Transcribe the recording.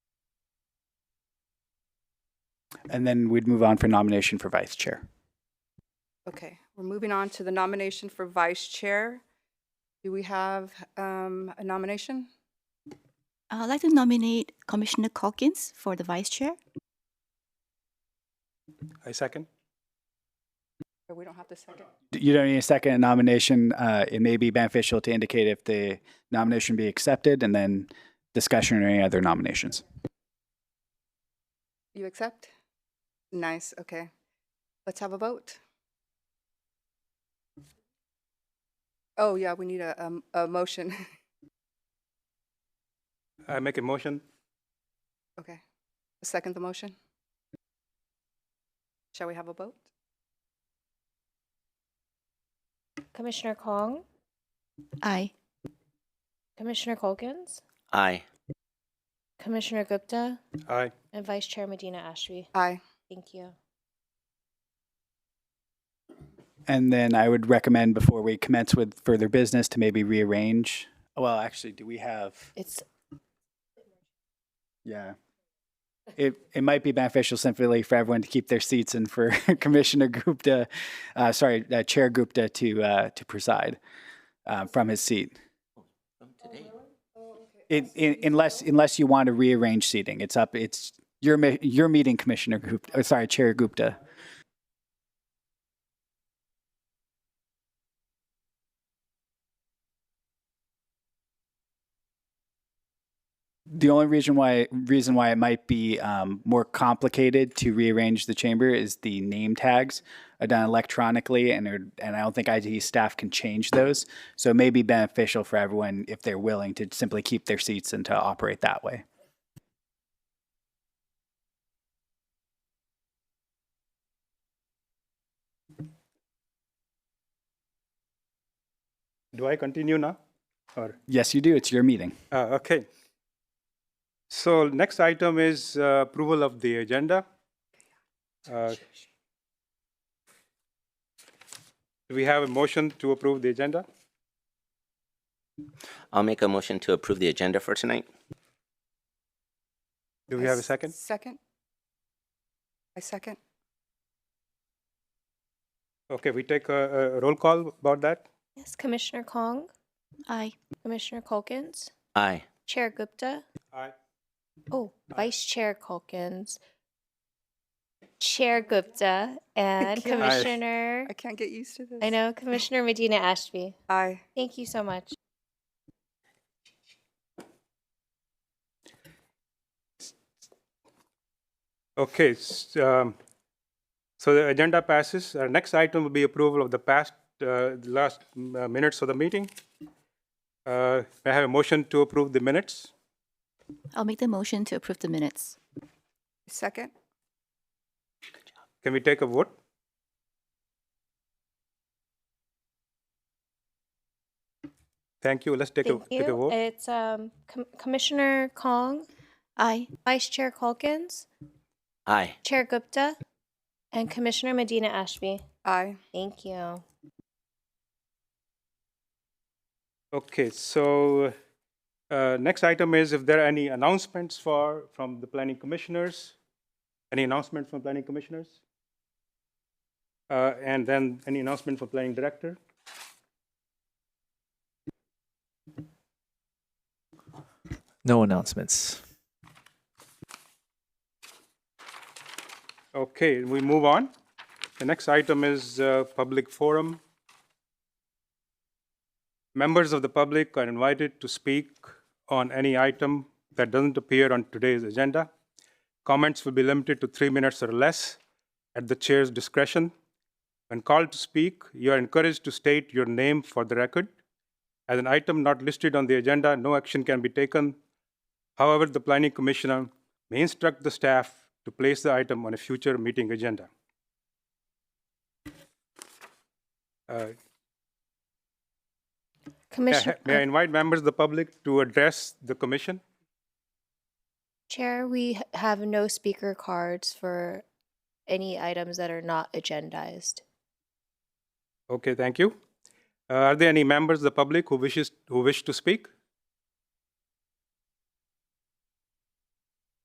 And then we'd move on for nomination for vice chair. Okay, we're moving on to the nomination for vice chair. Do we have um, a nomination? I'd like to nominate Commissioner Calkins for the vice chair. I second. Or we don't have to second? D- You don't need a second nomination. Uh, it may be beneficial to indicate if the nomination be accepted and then discussion or any other nominations. You accept? Nice, okay. Let's have a vote. Oh, yeah, we need a, um, a motion. I make a motion. Okay. Second the motion? Shall we have a vote? Commissioner Kong, Aye. Commissioner Colkins, Aye. Commissioner Gupta, Aye. and Vice Chair Medina Ashby. Aye. Thank you. And then I would recommend before we commence with further business to maybe rearrange. Well, actually, do we have? It's Yeah. It, it might be beneficial simply for everyone to keep their seats and for Commissioner Gupta, uh, sorry, uh, Chair Gupta to, uh, to preside, uh, from his seat. It, in- unless, unless you want to rearrange seating, it's up, it's your, mi- your meeting, Commissioner Gupta, or sorry, Chair Gupta. The only reason why reason why it might be um, more complicated to rearrange the chamber is the name tags are done electronically, and are, and I don't think IT staff can change those. So it may be beneficial for everyone if they're willing to simply keep their seats and to operate that way. Do I continue now? Or Yes, you do. It's your meeting. uh, okay. So next item is uh, approval of the agenda. Uh, do we have a motion to approve the agenda? I'll make a motion to approve the agenda for tonight. Do we I have a s- second? Second? I second? Okay, we take a, a roll call about that. yes, Commissioner Kong, Aye. Commissioner Colkins, Aye. Chair Gupta. Aye. Oh, Vice Chair Colkins, Chair Gupta, and can't- Aye. Commissioner. I can't get used to this. I know Commissioner Medina Ashby. Aye. Thank you so much. Okay, s- um, so the agenda passes. Our next item will be approval of the past, uh, the last mm, uh, minutes of the meeting. Uh, May I have a motion to approve the minutes? I'll make the motion to approve the minutes. Second? Can we take a vote? Thank you. Let's take a, Thank take a you. vote. It's um, Com- Commissioner Kong, Aye. Vice Chair Colkins, Aye. Chair Gupta, and Commissioner Medina Ashby. Aye. Thank you. Okay, so uh, next item is if there are any announcements for, from the planning commissioners? Any announcement from planning commissioners? Uh, And then any announcement for planning director? No announcements. Okay, we move on. The next item is uh, public forum. Members of the public are invited to speak on any item that doesn't appear on today's agenda. Comments will be limited to three minutes or less at the chair's discretion. When called to speak, you are encouraged to state your name for the record. As an item not listed on the agenda, no action can be taken However, the planning commissioner may instruct the staff to place the item on a future meeting agenda. Uh, May I Commissioner, uh, ha- may I invite members of the public to address the commission? Chair, we h- have no speaker cards for any items that are not agendized. Okay, thank you. Uh, Are there any members of the public who wishes, who wish to speak?